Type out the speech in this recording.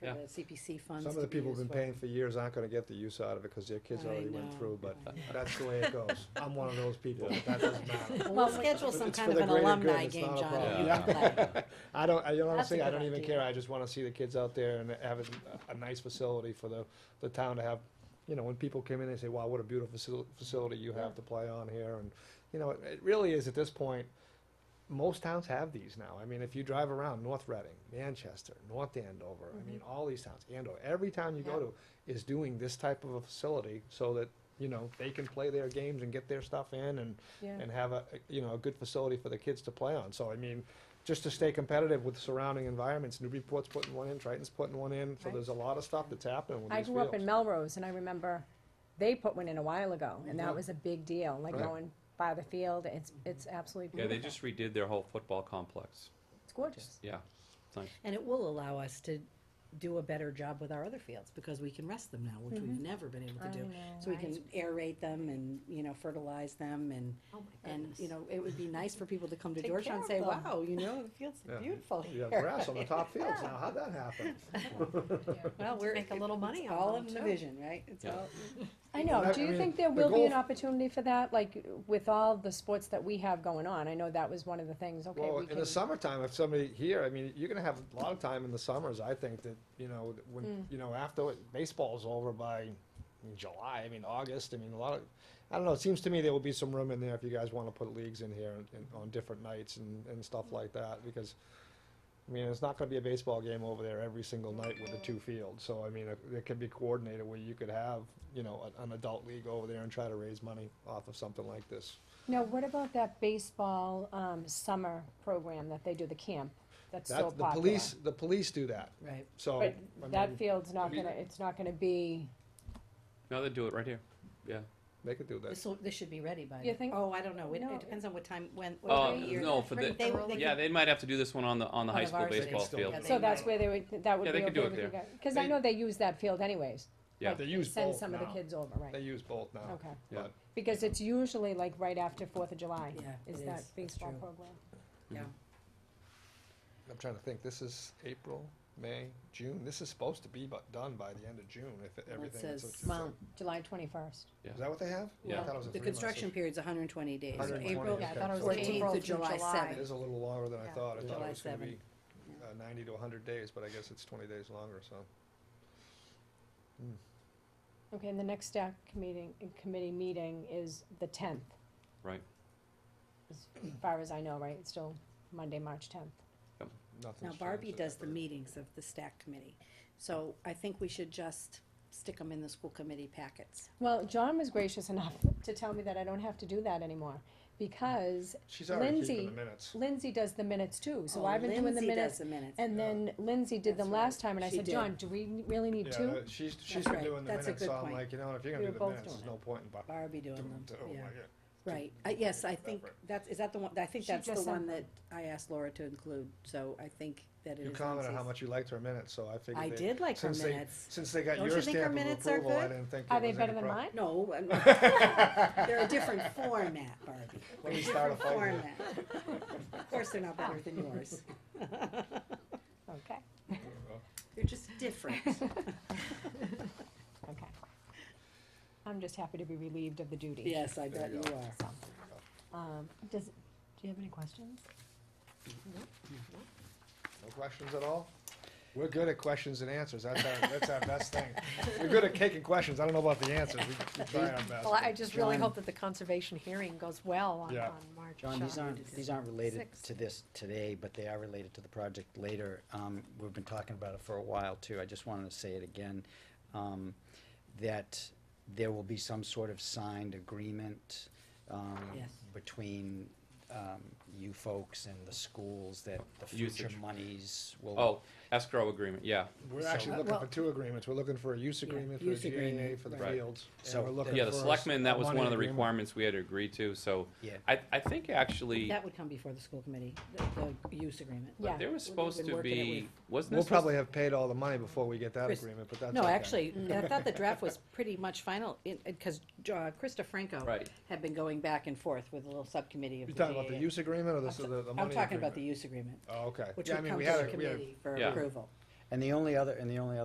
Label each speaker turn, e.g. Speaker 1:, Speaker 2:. Speaker 1: for
Speaker 2: Yeah.
Speaker 1: the CPC funds.
Speaker 3: Some of
Speaker 1: to
Speaker 3: the
Speaker 1: be
Speaker 3: people who've been
Speaker 1: used for.
Speaker 3: paying for years aren't gonna get the use out of it, cause their kids
Speaker 1: I
Speaker 3: already went
Speaker 1: know,
Speaker 3: through, but
Speaker 1: I know.
Speaker 3: that's the way it goes. I'm one of those people,
Speaker 4: Yeah.
Speaker 3: that doesn't matter.
Speaker 1: Well, We'll schedule some
Speaker 3: It's
Speaker 1: kind
Speaker 3: for
Speaker 1: of
Speaker 3: the
Speaker 1: an
Speaker 3: greater good,
Speaker 1: alumni
Speaker 3: it's
Speaker 1: game,
Speaker 3: not a
Speaker 1: John,
Speaker 3: problem.
Speaker 1: that you
Speaker 4: Yeah.
Speaker 1: can play.
Speaker 3: I don't, I
Speaker 1: That's a
Speaker 3: honestly, I
Speaker 1: good
Speaker 3: don't even
Speaker 1: idea.
Speaker 3: care, I just wanna see the kids out there and have a- a nice facility for the, the town to have, you know, when people come in, they say, wow, what a beautiful facil- facility you have to play on here, and, you know, it, it really is at this point, most towns have these now, I mean, if you drive around, North Reading, Manchester, North Andover, I mean, all these towns, Andover, every town you go
Speaker 1: Mm-hmm. Yeah.
Speaker 3: to is doing this type of a facility, so that, you know, they can play their games and get their stuff in, and
Speaker 1: Yeah.
Speaker 3: and have a, you know, a good facility for the kids to play on. So, I mean, just to stay competitive with surrounding environments, Newburyport's putting one in, Triton's putting one in, so
Speaker 5: Right.
Speaker 3: there's a lot of stuff that's happening with
Speaker 5: I
Speaker 3: these
Speaker 5: grew up in
Speaker 3: fields.
Speaker 5: Melrose, and I remember they put one in a while ago, and that was a big deal, like
Speaker 3: Right.
Speaker 5: going by the field, it's, it's absolutely
Speaker 2: Yeah,
Speaker 5: beautiful.
Speaker 2: they just redid their whole football complex.
Speaker 5: It's gorgeous.
Speaker 2: Yeah.
Speaker 1: And it will allow us to do a better job with our other fields, because we can rest them now, which we've
Speaker 6: Mm-hmm.
Speaker 1: never been able
Speaker 5: I
Speaker 1: to do.
Speaker 5: know,
Speaker 1: So we
Speaker 5: right?
Speaker 1: can aerate them and, you know, fertilize them and, and, you know, it would be nice for people to come to
Speaker 5: Take
Speaker 1: Georgetown and
Speaker 5: care
Speaker 1: say,
Speaker 5: of them.
Speaker 1: wow, you know, the field's
Speaker 3: Yeah.
Speaker 1: beautiful
Speaker 3: You
Speaker 1: here.
Speaker 3: have grass on the top fields now, how'd that happen?
Speaker 1: Well, we're.
Speaker 6: Make a little
Speaker 1: it's
Speaker 6: money on
Speaker 1: All
Speaker 6: them,
Speaker 1: in the
Speaker 6: too.
Speaker 1: vision, right? It's
Speaker 2: Yeah.
Speaker 1: all.
Speaker 5: I know,
Speaker 3: I-
Speaker 5: do
Speaker 3: I
Speaker 5: you
Speaker 3: mean,
Speaker 5: think there
Speaker 3: the
Speaker 5: will be an
Speaker 3: goal-
Speaker 5: opportunity for that, like, with all the sports that we have going on, I know that was one of the things, okay,
Speaker 3: Well,
Speaker 5: we
Speaker 3: in
Speaker 5: can,
Speaker 3: the summertime, if somebody here, I mean, you're gonna have a lot of time in the summers, I think, that, you know, that
Speaker 5: Hmm.
Speaker 3: when, you know, after it- baseball's over by July, I mean, August, I mean, a lot of, I don't know, it seems to me there will be some room in there if you guys wanna put leagues in here and, and on different nights and, and
Speaker 5: Hmm.
Speaker 3: stuff like that, because, I mean, it's not gonna be a baseball game over there every single night with the two fields, so, I mean, it, it could be coordinated where you could have, you know, an, an adult league over there and try to raise money off of something like this.
Speaker 5: now, what about that baseball, um, summer program that they do, the camp, that's so
Speaker 3: That, the
Speaker 5: popular?
Speaker 3: police, the police do that,
Speaker 1: Right.
Speaker 3: so. I
Speaker 5: But
Speaker 3: mean-
Speaker 5: that field's not
Speaker 2: we-
Speaker 5: gonna, it's not gonna be,
Speaker 2: No, they do it right here. Yeah.
Speaker 3: They could do that.
Speaker 6: This will, this should be ready by.
Speaker 5: You
Speaker 6: the-
Speaker 5: think-
Speaker 6: Oh, I don't know. It,
Speaker 5: No.
Speaker 6: it depends on what time, when, what
Speaker 2: Oh,
Speaker 6: time of year.
Speaker 2: no, for the,
Speaker 6: They- they
Speaker 2: yeah,
Speaker 6: could-
Speaker 2: they might have to do this one on the, on the
Speaker 6: On
Speaker 2: high
Speaker 6: the
Speaker 2: school
Speaker 6: varsity.
Speaker 2: baseball
Speaker 3: Still-
Speaker 2: field.
Speaker 6: Yeah, they
Speaker 5: so
Speaker 6: might.
Speaker 5: that's where they would, that would
Speaker 2: Yeah,
Speaker 5: be
Speaker 2: they could do
Speaker 5: okay
Speaker 2: it
Speaker 5: with you
Speaker 2: there.
Speaker 5: guys, cause I
Speaker 3: They-
Speaker 5: know they use that field anyways.
Speaker 2: Yeah.
Speaker 5: Like,
Speaker 3: They use
Speaker 5: Send
Speaker 3: both
Speaker 5: some of the
Speaker 3: now.
Speaker 5: kids over,
Speaker 3: They
Speaker 5: right,
Speaker 3: use both now.
Speaker 5: okay.
Speaker 2: Yeah.
Speaker 3: But
Speaker 5: Because it's usually like right after Fourth of July.
Speaker 1: Yeah,
Speaker 5: Is
Speaker 1: it
Speaker 5: that
Speaker 1: is. That's
Speaker 5: baseball
Speaker 1: true.
Speaker 5: program?
Speaker 3: I'm trying to think, this is April, May, June, this is supposed to be bu- done by the end of June if it-
Speaker 1: Well, it
Speaker 3: everything. is-
Speaker 1: says-
Speaker 3: is that-
Speaker 1: Well,
Speaker 5: July twenty-first.
Speaker 3: Is that what they have? I
Speaker 2: Yeah.
Speaker 3: thought it was a
Speaker 1: The
Speaker 3: three-month
Speaker 1: construction
Speaker 3: system.
Speaker 1: period's hundred and twenty days, so
Speaker 3: 120
Speaker 1: April
Speaker 3: days.
Speaker 5: Yeah, I thought it was
Speaker 3: Okay.
Speaker 5: April
Speaker 1: fourteenth to
Speaker 5: through
Speaker 1: July
Speaker 5: July.
Speaker 3: It
Speaker 1: seventh.
Speaker 3: is a little longer than I
Speaker 5: Yeah.
Speaker 3: thought. I thought
Speaker 1: July
Speaker 3: it was gonna
Speaker 1: 7.
Speaker 3: be uh, ninety to hundred days, but I guess it's twenty days longer, so.
Speaker 5: Okay, and the next staff committee, committee meeting is the tenth,
Speaker 2: Right.
Speaker 5: as far as I know, right? It's still Monday, March tenth.
Speaker 3: nothing's
Speaker 1: Now
Speaker 3: changed
Speaker 1: Barbie
Speaker 3: in
Speaker 1: does
Speaker 3: that
Speaker 1: the
Speaker 3: regard.
Speaker 1: meetings of the stack committee, so I think we should just stick them in the school committee packets.
Speaker 5: Well, John was gracious enough to tell me that I don't have to do that anymore, because
Speaker 3: She's already keeping
Speaker 5: Lindsay-
Speaker 3: the minutes.
Speaker 5: Lindsay does the minutes too, so
Speaker 1: Oh,
Speaker 5: I've been doing the
Speaker 1: Lindsay does
Speaker 5: minutes.
Speaker 1: the minutes.
Speaker 5: And then Lindsay did
Speaker 1: That's
Speaker 5: them
Speaker 1: right.
Speaker 5: last time, and I
Speaker 1: She
Speaker 5: said,
Speaker 1: did.
Speaker 5: John, do we really need
Speaker 3: Yeah,
Speaker 5: two?
Speaker 3: that- she's, she's
Speaker 1: That's
Speaker 3: been
Speaker 1: right.
Speaker 3: doing the
Speaker 1: That's a
Speaker 3: minutes,
Speaker 1: good
Speaker 3: so I'm
Speaker 1: point.
Speaker 3: like, you know, if you're
Speaker 5: We
Speaker 3: gonna do
Speaker 5: were
Speaker 3: the
Speaker 5: both
Speaker 3: minutes, there's
Speaker 5: doing it.
Speaker 3: no point in. bu-
Speaker 1: Barbie doing
Speaker 3: doing
Speaker 1: them,
Speaker 3: it. Oh,
Speaker 1: yeah,
Speaker 3: my God.
Speaker 1: right, Uh, yes, I
Speaker 3: That
Speaker 1: think
Speaker 3: right.
Speaker 1: that's, is that the one, I think
Speaker 5: She
Speaker 1: that's the
Speaker 5: just sent
Speaker 1: one that
Speaker 5: them.
Speaker 1: I asked Laura to include, so I think that it is.
Speaker 3: You
Speaker 1: on
Speaker 3: commented how
Speaker 1: C's.
Speaker 3: much you liked her minutes, so I figured.
Speaker 1: I
Speaker 3: they-
Speaker 1: did like her
Speaker 3: since they-
Speaker 1: minutes.
Speaker 3: Since they got
Speaker 1: Don't
Speaker 3: your
Speaker 1: you think her
Speaker 3: stamp of
Speaker 1: minutes are
Speaker 3: approval, I
Speaker 1: good?
Speaker 3: didn't think.
Speaker 5: Are
Speaker 3: there
Speaker 5: they
Speaker 3: was
Speaker 5: better
Speaker 3: any
Speaker 5: than
Speaker 3: prob-
Speaker 5: mine?
Speaker 1: No, I'm not- they're a different format, Barbie.
Speaker 3: Let me start a fight here.
Speaker 1: Format. Of course, they're not better than yours.
Speaker 5: Okay,
Speaker 1: They're just different.
Speaker 5: okay. I'm just happy to be relieved of the duty.
Speaker 1: Yes, I
Speaker 3: There
Speaker 1: bet
Speaker 3: you
Speaker 1: you
Speaker 3: go.
Speaker 1: are.
Speaker 5: Um, does, do you have any questions?
Speaker 3: No questions at all? We're good at questions and answers, that's our, that's our best thing. We're good at taking questions, I don't know about the answers, we we try our best.
Speaker 6: Well, I just really hope that the conservation hearing goes well on,
Speaker 3: Yeah.
Speaker 6: on March.
Speaker 7: John, these
Speaker 6: uh,
Speaker 7: aren't, these aren't related
Speaker 6: Six.
Speaker 7: to this today, but they are related to the project later. Um, we've been talking about it for a while too. I just wanted to say it again. Um, that there will be some sort of signed agreement, um,
Speaker 1: Yes.
Speaker 7: between, um, you folks and the schools that the future
Speaker 2: Usage.
Speaker 7: monies will.
Speaker 2: Oh, escrow agreement, yeah.
Speaker 3: We're actually
Speaker 7: So-
Speaker 3: looking for
Speaker 1: Well-
Speaker 3: two agreements, we're looking for a use agreement for
Speaker 1: use
Speaker 3: the GNA
Speaker 1: agreement,
Speaker 3: for the
Speaker 2: right.
Speaker 3: fields. and
Speaker 7: So-
Speaker 3: we're looking
Speaker 2: Yeah, the
Speaker 3: for a s-
Speaker 2: selectmen, that
Speaker 3: a
Speaker 2: was
Speaker 3: money
Speaker 2: one of the
Speaker 3: agreement.
Speaker 2: requirements we had to agree to, so.
Speaker 7: Yeah.
Speaker 2: I, I think actually,
Speaker 1: That would come before the school committee, the, the use agreement.
Speaker 5: Yeah.
Speaker 2: there was
Speaker 1: We've
Speaker 2: supposed
Speaker 1: been
Speaker 2: to
Speaker 1: working it
Speaker 2: be,
Speaker 1: with-
Speaker 2: wasn't
Speaker 3: We'll
Speaker 2: this?
Speaker 3: probably have paid all the money before we get that
Speaker 1: Chris-
Speaker 3: agreement, but that's
Speaker 1: No,
Speaker 3: okay.
Speaker 1: actually, I thought the draft was pretty much final, because uh, Krista Franco
Speaker 2: Right.
Speaker 1: had been going back and forth with a little subcommittee of the
Speaker 3: You talking about the
Speaker 1: GAA.
Speaker 3: use agreement or
Speaker 1: I'm
Speaker 3: the, s- the, the
Speaker 1: t-
Speaker 3: money agreement?
Speaker 1: I'm talking about the use agreement,
Speaker 3: Oh, okay.
Speaker 1: which
Speaker 3: Yeah, I
Speaker 1: would
Speaker 3: mean,
Speaker 1: come
Speaker 3: we
Speaker 1: to
Speaker 3: had
Speaker 1: the
Speaker 3: a- we had a-
Speaker 1: committee for
Speaker 2: Yeah.
Speaker 1: approval.
Speaker 7: And the only other, and the only